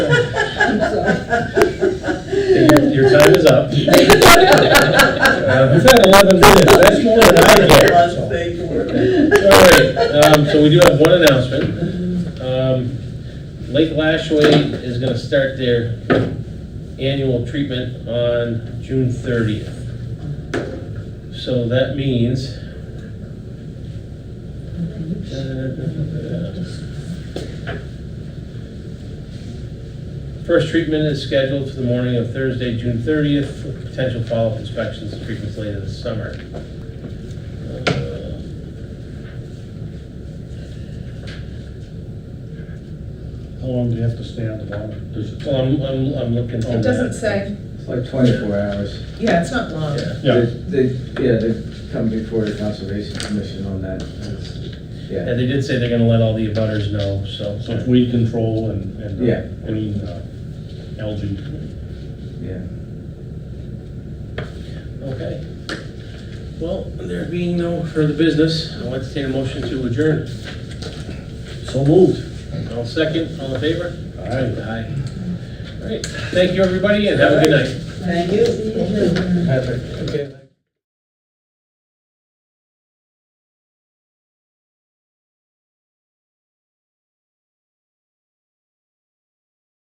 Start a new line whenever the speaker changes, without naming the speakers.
Your, your time is up. Uh, We've had 11 minutes, that's more than I get.
Lots of paperwork.
All right, um, so we do have one announcement. Um, Lake Lashway is gonna start their annual treatment on June thirtieth. So that means. First treatment is scheduled for the morning of Thursday, June thirtieth, with potential follow-up inspections and treatments later this summer. Uh,
How long do you have to stay on the bottom? Does it-
Well, I'm, I'm, I'm looking.
It doesn't say,
It's like twenty-four hours.
yeah, it's not long.
Yeah.
Yeah.
They, they- yeah, they come before the conservation commission on that. That's-
Yeah,
Yeah,
they did say they're gonna let all the abutters know, so.
So it's weed control and, and uh,
Yeah.
any uh, algae.
yeah.
Okay. Well, there being no further business, I'll entertain a motion to adjourn.
So moved.
All second, all in favor?
All right.
Aye. All right, thank you, everybody, and have a good night.
Thank you.
Okay.